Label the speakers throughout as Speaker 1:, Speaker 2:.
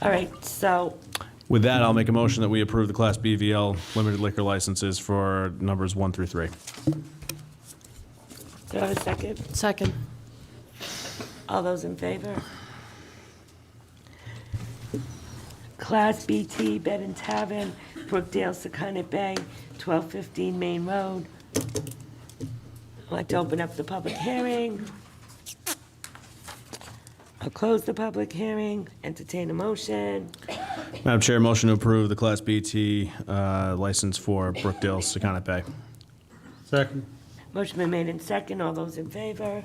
Speaker 1: All right, so,
Speaker 2: With that, I'll make a motion that we approve the Class BVL limited liquor licenses for numbers one through three.
Speaker 1: do I have a second?
Speaker 3: Second.
Speaker 1: All those in favor? Class BT Bed and Tavern, Brookdale, Secundit Bay, 1215 Main Road. I'd like to open up the public hearing. I'll close the public hearing, entertain a motion.
Speaker 2: Madam Chair, motion to approve the Class BT uh, license for Brookdale Secana Bay.
Speaker 4: Second.
Speaker 1: Motion been made in second, all those in favor?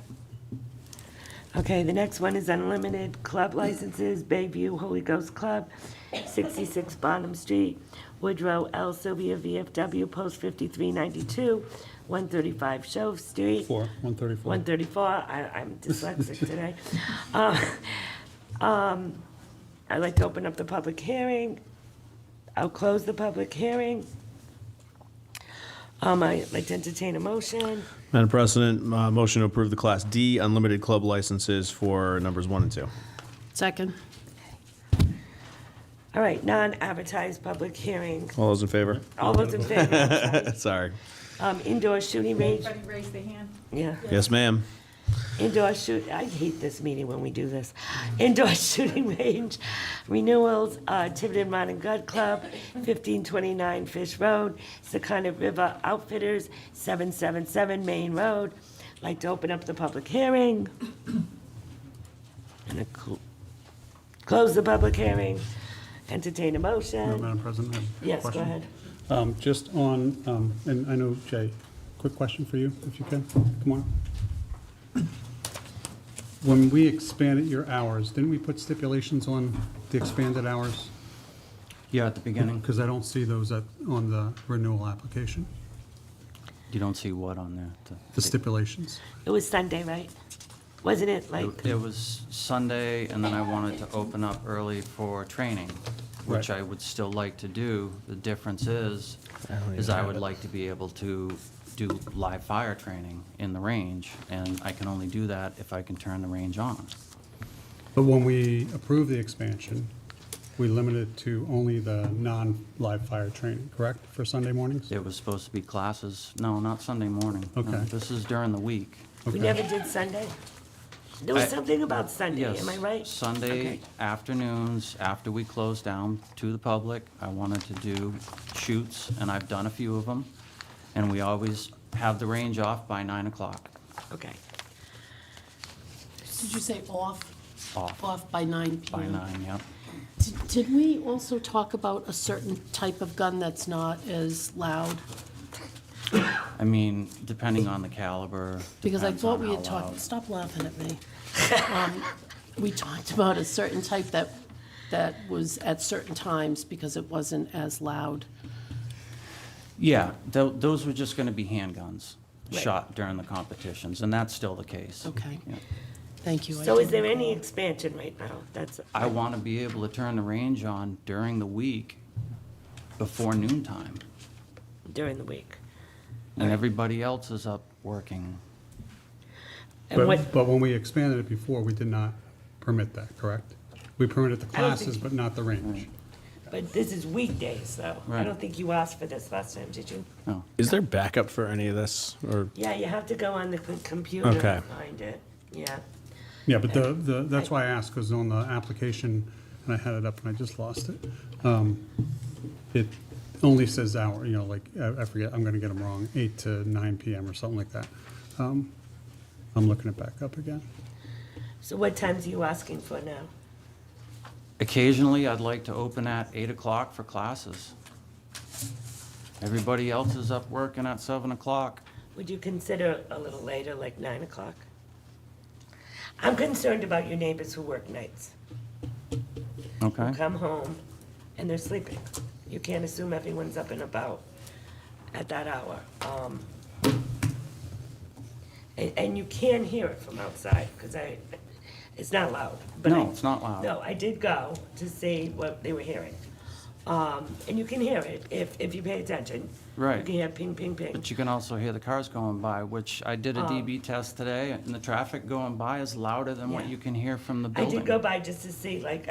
Speaker 1: Okay, the next one is unlimited club licenses, Bayview Holy Ghost Club, 66 Bonham Street, Woodrow L. Sylvia VFW, Post 5392, 135 Shove Street.
Speaker 4: Four, 134.
Speaker 1: 134, I- I'm dyslexic today. Uh, um, I'd like to open up the public hearing. I'll close the public hearing. Um, I'd like to entertain a motion.
Speaker 2: Madam President, uh, motion to approve the Class D unlimited club licenses for numbers one and two.
Speaker 3: Second.
Speaker 1: All right, non-advertised public hearing.
Speaker 2: All those in favor?
Speaker 1: All those in favor?
Speaker 2: Sorry.
Speaker 1: Um, Indoor shooting range,
Speaker 5: Everybody raise their hand.
Speaker 1: yeah.
Speaker 2: Yes, ma'am.
Speaker 1: Indoor shoot, I hate this meeting when we do this. Indoor shooting range renewals, uh, Tiverton Rod and Gun Club, fifteen twenty-nine Fish Road, Secundit River Outfitters, seven seven seven Main Road. Like to open up the public hearing. And a cl- close the public hearing, entertain a motion.
Speaker 4: Madam President, I have a
Speaker 1: Yes, go
Speaker 4: question.
Speaker 1: ahead.
Speaker 4: Um, Just on, um, and I know, Jay, quick question for you, if you can, come on. When we expanded your hours, didn't we put stipulations on the expanded hours?
Speaker 6: Yeah, at the beginning.
Speaker 4: Because I don't see those at- on the renewal application,
Speaker 6: You don't see what on there? the-
Speaker 4: the stipulations.
Speaker 1: It was Sunday, right? Wasn't it like,
Speaker 6: It was Sunday, and then I wanted to open up early for training, which
Speaker 4: Right.
Speaker 6: I would still like to do. The difference is, is I would like to be able to do live fire training in the range, and I can only do that if I can turn the range on.
Speaker 4: But when we approved the expansion, we limited it to only the non-live fire training, correct, for Sunday mornings?
Speaker 6: It was supposed to be classes, no, not Sunday morning. No,
Speaker 4: Okay.
Speaker 6: This is during the week.
Speaker 1: we
Speaker 4: Okay.
Speaker 1: never did Sunday? There was
Speaker 6: I-
Speaker 1: something about Sunday,
Speaker 6: Yes.
Speaker 1: am I right?
Speaker 6: Sunday
Speaker 1: Okay.
Speaker 6: afternoons, after we close down to the public, I wanted to do shoots, and I've done a few of them. And we always have the range off by nine o'clock.
Speaker 1: Okay.
Speaker 3: Did you say off?
Speaker 6: Off.
Speaker 3: Off by nine PM?
Speaker 6: By
Speaker 1: Mm-hmm.
Speaker 6: nine, yep.
Speaker 3: Did- Did we also talk about a certain type of gun that's not as loud?
Speaker 6: I mean, depending on the caliber.
Speaker 3: Because I
Speaker 6: depends
Speaker 3: thought
Speaker 6: on
Speaker 3: we had
Speaker 6: how
Speaker 3: talked,
Speaker 6: loud.
Speaker 3: stop laughing at me. Um, We talked about a certain type that, that was at certain times because it wasn't as loud.
Speaker 6: Yeah, tho- those were just gonna be handguns
Speaker 1: Right.
Speaker 6: shot during the competitions, and that's still the case.
Speaker 3: Okay.
Speaker 6: Yeah.
Speaker 3: Thank you. I
Speaker 1: So is
Speaker 3: didn't-
Speaker 1: there any expansion right now? That's,
Speaker 6: I want to be able to turn the range on during the week before noontime.
Speaker 1: during the week.
Speaker 6: And everybody else is up working.
Speaker 1: And what,
Speaker 4: But, but when we expanded it before, we did not permit that, correct? We permitted the
Speaker 1: I don't think-
Speaker 4: classes, but not the range.
Speaker 1: but this is weekdays, though. I
Speaker 6: Right.
Speaker 1: don't think you asked for this last time, did you?
Speaker 6: No,
Speaker 2: Is there backup for any of this? Or,
Speaker 1: Yeah, you have to go on the c- computer
Speaker 2: Okay.
Speaker 1: and find it, yeah.
Speaker 4: Yeah, but the, the, that's why I asked, because on the application, and I had it up and I just lost it. um, It only says hour, you know, like, I I forget, I'm gonna get them wrong, eight to nine PM or something like that. Um, I'm looking it back up again.
Speaker 1: So what times are you asking for now?
Speaker 6: Occasionally, I'd like to open at eight o'clock for classes. Everybody else is up working at seven o'clock.
Speaker 1: Would you consider a little later, like nine o'clock? I'm concerned about your neighbors who work nights.
Speaker 6: Okay,
Speaker 1: come home and they're sleeping. You can't assume everyone's up and about at that hour. Um, And, and you can hear it from outside, because I, it's not loud. but I-
Speaker 6: No, it's not loud.
Speaker 1: No, I did go to see what they were hearing. Um, And you can hear it if, if you pay attention. You
Speaker 6: Right.
Speaker 1: can hear ping, ping, ping.
Speaker 6: but you can also hear the cars going by, which I did a
Speaker 1: Oh.
Speaker 6: DB test today, and the traffic going by is louder than what
Speaker 1: Yeah.
Speaker 6: you can hear from the
Speaker 1: I
Speaker 6: building.
Speaker 1: did go by just to see, like,